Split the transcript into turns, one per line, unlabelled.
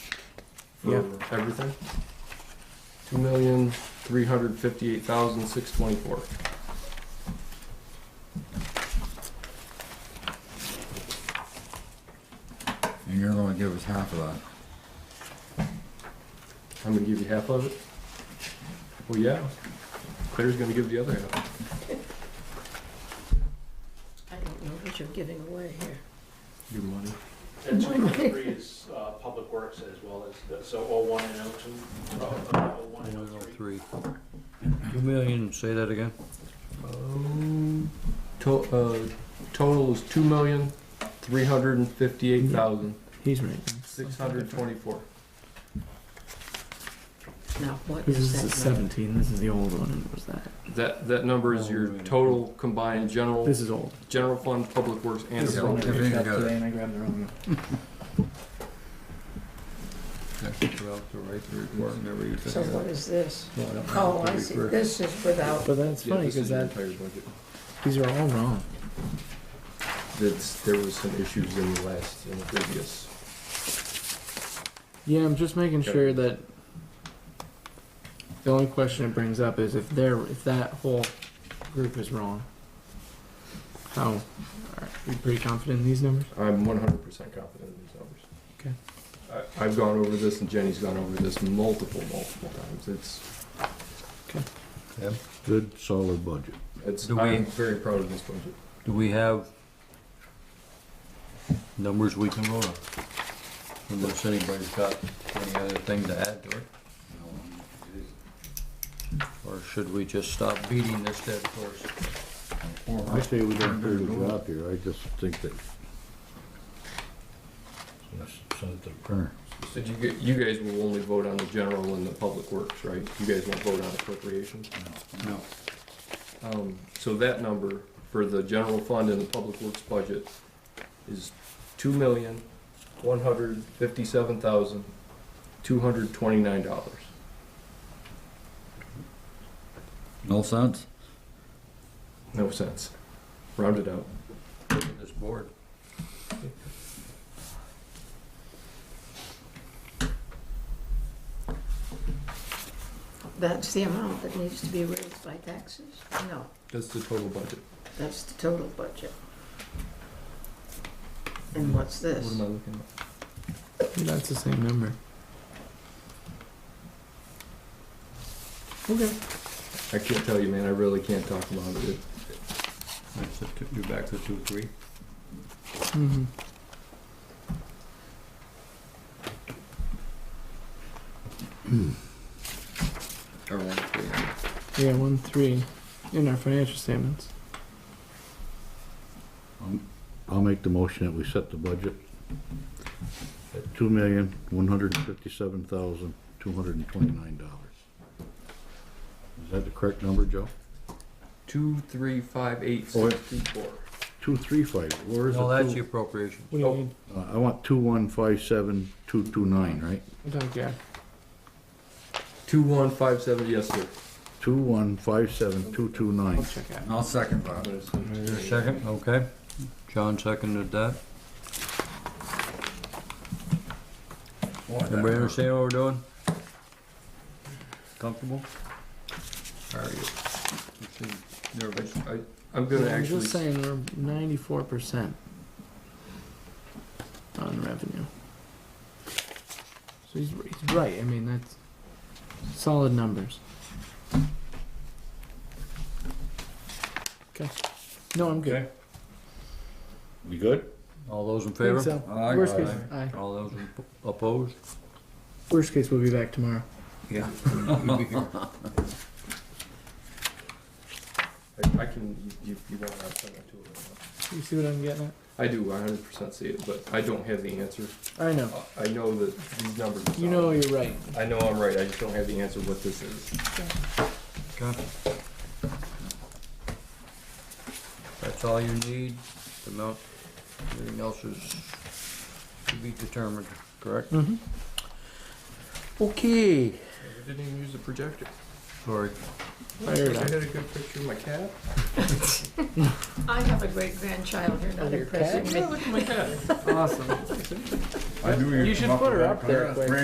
for
Yeah.
everything. Two million three hundred fifty-eight thousand six twenty-four.
And you're gonna give us half of that.
I'm gonna give you half of it. Well, yeah. Claire's gonna give the other half.
I don't know what you're giving away here.
Your money.
And two point three is uh, Public Works as well as, the- so O one and O two, O one and O three.
Three. Two million, say that again?
Um, to, uh, total is two million three hundred and fifty-eight thousand
He's right.
six hundred twenty-four.
Now, what
This
is
is the
that number?
17. This is the old one. And it was that?
That, that number is
Oh,
your total combined general,
This is old.
general fund, public works and
This is the one I
appropriate.
Everything
picked up
together.
today, and I grabbed the wrong one.
That's throughout the right to report and every.
So what is this?
Well, don't know.
Oh, I see, this is without,
But that's
Yeah,
funny
this is
because
your
that
entire budget.
these are all wrong.
That's, there was some issues in the last, in the previous.
Yeah, I'm just making
Okay.
sure that the only question it brings up is if they're if that whole group is wrong. Oh, How are you pretty confident in these numbers?
I'm one hundred percent confident in these numbers.
Okay.
I, I've gone over this and Jenny's gone over this multiple, multiple times. It's,
Good, solid budget.
it's,
Do we-
I'm very proud of this budget.
Do we have numbers we can vote on? Unless anybody's got any other thing to add to it? Or should we just stop beating this dead horse?
I say we done a pretty good job here, I just think that.
So you, gu- you guys will only vote on the general and the public works, right? You guys won't vote on appropriations?
No.
Um, so that number for the general fund and the public works budget is two million, one hundred fifty-seven thousand, two hundred twenty-nine dollars.
No sense.
No sense. Rounded out.
Look at this board.
that's the amount that needs to be raised by taxes? No,
That's the total budget.
that's the total budget. And what's
What
this?
am I looking at?
That's the same number.
Okay.
I can't tell you, man. I really can't talk about it.
That's the two- You're back to two, three?
Mm-hmm.
Or one, three, yeah.
Yeah, one three in our financial statements.
I'll make the motion that we set the budget at two million, one hundred and fifty-seven thousand, two hundred and twenty-nine dollars. Is that the correct number, Joe?
Two, three, five, eight,
Oh,
six, two, four.
Two, three, five, where is it?
No, that's the appropriation.
What do you
Oh.
mean?
Uh, I want two, one, five, seven, two, two, nine, right?
I'm talking- yeah.
Two, one, five, seven, yes, sir.
Two, one, five, seven, two, two,
I'll
nine.
check out.
I'll second
I'm
that.
gonna send it
Is there a
to you.
second? Okay. John seconded that.
Boy, that
Everybody
hurt.
understand what we're doing? Comfortable?
Are you? You seem Nervous.
I, I'm gonna
I'm
actually,
just saying we're ninety-four percent on revenue. So he's, he's right. I mean that's solid numbers. Okay. No, I'm good.
We good?
All those in
Think
favor?
so.
Aye.
Worst
Aye.
case, aye.
All those opposed?
Worst case, we'll be back tomorrow.
Yeah.
I I can, you, you- you won't have to send that to it right now.
You see what I'm getting at?
I do, I hundred percent see it, but I don't have the answer.
I know.
Uh, I know that these numbers. are
You know
solid.
you're right.
I know I'm right, I just don't have the answer what this is.
Okay. That's all you need, the amount, everything else is to be determined, correct?
Mm-hmm.
Okay.
I didn't even use the projector.
Sorry.
I had a good picture of my cat.
I have a great grandchild, you're not
Your
impressing me.
Look at my cat.
Awesome.
I knew
You
you'd
should
come up
put
with
her
that.
up there
That's
quick.
brand